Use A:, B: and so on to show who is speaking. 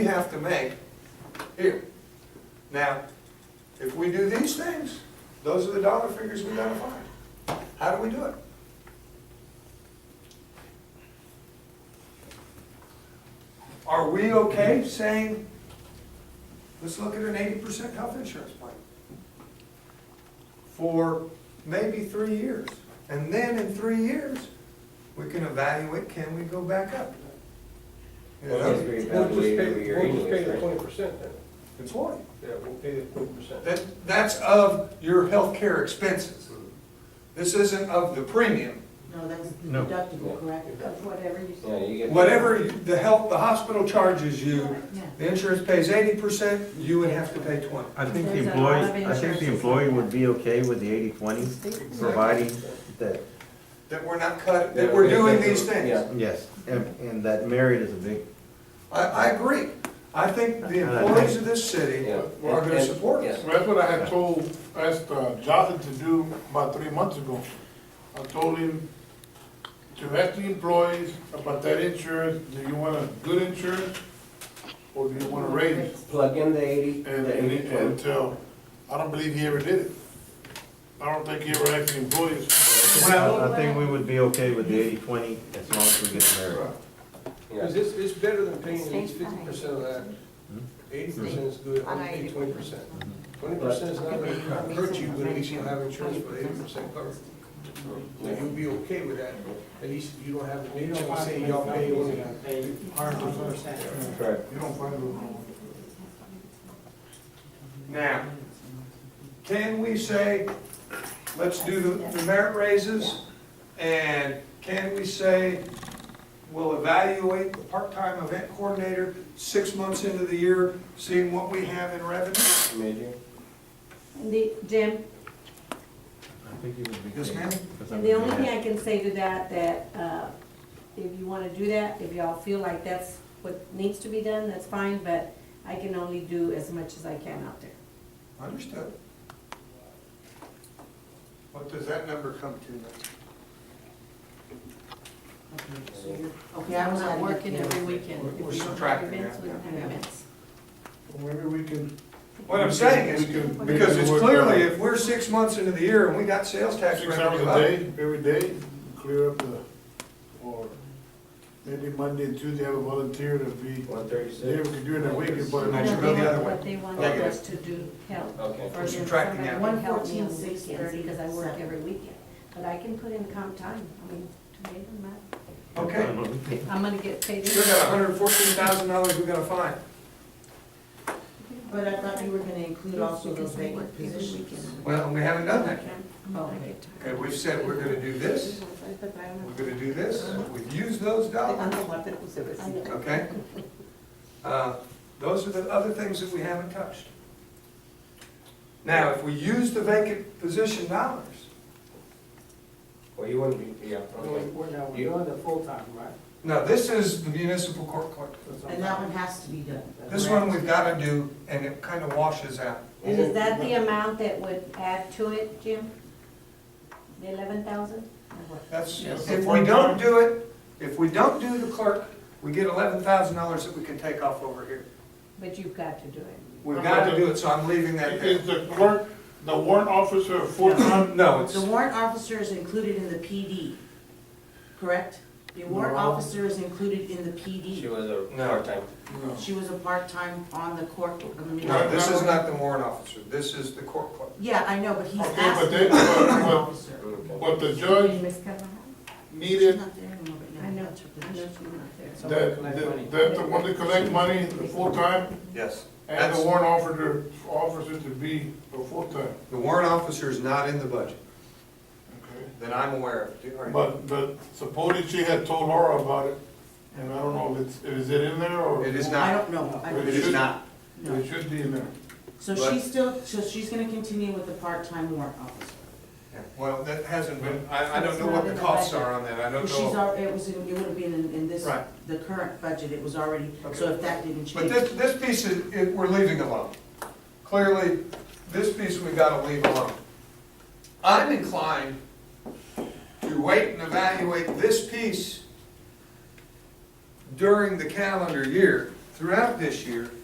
A: have to make here. Now, if we do these things, those are the dollar figures we gotta find. How do we do it? Are we okay saying, let's look at an eighty percent health insurance plan? For maybe three years, and then in three years, we can evaluate, can we go back up? You
B: Well,
A: know?
B: that's great.
C: We'll just pay,
B: Every year
C: we'll just pay the
B: anyways,
C: twenty
B: right?
C: percent then.
A: It's one.
C: Yeah, we'll pay the twenty percent.
A: That, that's of your healthcare expenses. This isn't of the premium.
D: No, that's the
E: No.
D: deductible, correct, of whatever you
B: Yeah, you
D: said.
B: get-
A: Whatever you- the health, the hospital charges you,
D: Yeah.
A: the insurance pays eighty percent, you would have to pay twenty.
E: I think the
D: There's a lot
E: employee,
D: of
E: I think
D: insurance.
E: the employee would be okay with the eighty-twenty, providing that,
A: That we're not cut, that we're doing these things.
B: Yeah.
E: yes, and, and that merit is a big,
A: I, I agree. I think the employees of this city
B: Yeah.
A: are gonna support us.
F: Well, That's what I had told, asked uh, Jonathan to do about three months ago. I told him to ask the employees about that insurance, do you want a good insurance? Or do you want to raise it?
B: Plug in the eighty,
F: And,
B: the
F: and,
B: eighty
F: and
B: twenty.
F: tell, I don't believe he ever did it. I don't think he ever asked the employees.
E: I I think we would be okay with the eighty-twenty as long as we get merit.
C: Cause it's, it's better than paying fifty percent of that.
B: Hmm?
C: Eighty percent is good, I'll pay twenty percent. Twenty percent is not gonna hurt you, but at least you'll have insurance for eighty percent covered. So you'll be okay with that, at least you don't have to make them say y'all pay only
F: Hundred percent.
B: Correct.
F: You don't find it wrong.
A: Now, can we say, let's do the- the merit raises? And can we say, we'll evaluate the part-time event coordinator six months into the year, seeing what we have in revenue?
B: Major.
G: The, Jim,
E: I think it would be.
A: Yes,
E: good,
A: ma'am?
E: 'cause I
G: and
E: would
G: the only
E: be-
G: thing I can say to that, that, uh, if you wanna do that, if y'all feel like that's what needs to be done, that's fine, but I can only do as much as I can out there.
A: Understood. What does that number come to then?
D: So you're- Okay,
G: Okay,
D: I
G: I'm
D: was
G: not
D: out
G: working every weekend.
A: We're- we're
G: If we don't have
A: subtracting
G: events,
A: that,
G: we don't have
D: yeah.
G: events.
F: Maybe we can.
A: What I'm saying
F: we can-
A: is,
F: we can
A: because it's
F: work
A: clearly,
F: out
A: if we're six months into the year and we got sales tax
F: Six hours
A: revenue
F: a
A: up,
F: day, every day, clear up the, or maybe Monday and Tuesday have a volunteer to be
B: One
F: Yeah, we
B: thirty-six.
F: could do it in a week, but
G: No,
A: I
G: they
A: should go the
G: want-
A: other way.
G: What they want
A: Okay.
G: us to do, help.
B: Okay.
G: For them,
A: Subtracting out.
G: somebody help me on
D: 114,
G: weekends, because I work
D: 637.
G: every weekend. But I can put in comp time, I mean, today I'm not,
A: okay,
G: I'm gonna get paid.
A: we got hundred and fourteen thousand dollars we gotta find.
D: But I thought you were gonna include also those
G: Because we work
D: vacant
G: every
D: positions.
G: weekend. Oh,
A: Well, we haven't done that yet.
D: Okay.
A: Okay, we've said we're gonna do this, we're gonna do this, we've used those dollars, okay? Uh, Those are the other things that we haven't touched. Now, if we use the vacant position dollars,
B: Well, you wouldn't be, yeah, okay.
H: We're doing the full-time, right?
A: now, this is the municipal court clerk.
D: And that one has to be done.
A: This one we've gotta do, and it kinda washes out.
G: And is that the amount that would add to it, Jim? The eleven thousand?
A: That's,
F: Yes.
A: if we don't do it, if we don't do the clerk, we get eleven thousand dollars that we can take off over here.
G: But you've got to do it.
A: We've gotta do it, so I'm leaving that
F: Is
A: there.
F: the clerk, the warrant officer a full-time?
A: No, it's,
D: The warrant officer is included in the PD, correct? The warrant
F: No.
D: officer is included in the
B: She
D: PD.
B: was a
A: No.
B: part-time.
F: No.
D: She was a part-time on the court, on the
A: no,
D: municipal.
A: this is not the warrant officer, this is the court clerk.
D: Yeah, I know, but he's
F: Okay, but
D: asked to be
F: they-
D: a warrant
F: but-
D: officer.
F: But the judge
G: Miss Carvajal?
D: She's
F: needed,
D: not there anymore, but yeah.
G: I know,
D: that's her
G: I know
D: position.
G: she's not there.
F: that, that that the one that collect money, the full-time,
A: Yes.
F: and
A: That's,
F: the warrant officer, officer to be a full-time,
A: the warrant officer is not in the budget,
F: okay?
A: that I'm aware of. Do- are you-
F: But, but supposedly she had told Laura about it, and I don't know if it's, is it in there or?
A: It is
D: I
A: not,
D: don't know. I
A: it
D: don't
A: is not.
D: know.
F: It should be in there.
D: So
A: But-
D: she's still, so she's gonna continue with the part-time warrant officer.
A: Yeah, Well, that hasn't been, I, I don't know what the costs are on that, I don't
D: She's,
A: know.
D: al- it was, in- it would have been in, in this,
A: Right.
D: the current budget, it was already, so
A: Okay.
D: if that didn't
A: But
D: change.
A: this, this piece is, it, we're leaving alone. Clearly, this piece we gotta leave alone. I'm inclined to wait and evaluate this piece during the calendar year throughout this year